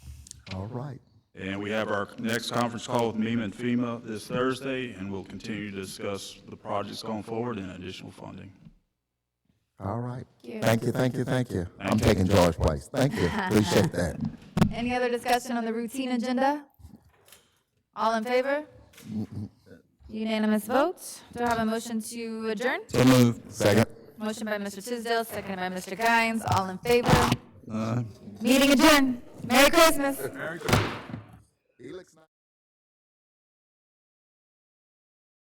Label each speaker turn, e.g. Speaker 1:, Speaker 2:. Speaker 1: right.
Speaker 2: And we have our next conference call with MEMA and FEMA this Thursday, and we'll continue to discuss the projects going forward and additional funding.
Speaker 1: All right.
Speaker 3: you.
Speaker 1: Thank you, thank you, thank you. I'm
Speaker 2: Thank you.
Speaker 1: taking George's place. Thank you. Appreciate that.
Speaker 3: Any other discussion on the routine agenda? All in favor? Unanimous vote. Do I have a motion to adjourn?
Speaker 1: So moved. Second.
Speaker 3: Motion by Mr. Tisdale, seconded by Mr. Guines. All in favor? Meeting adjourned. Merry Christmas.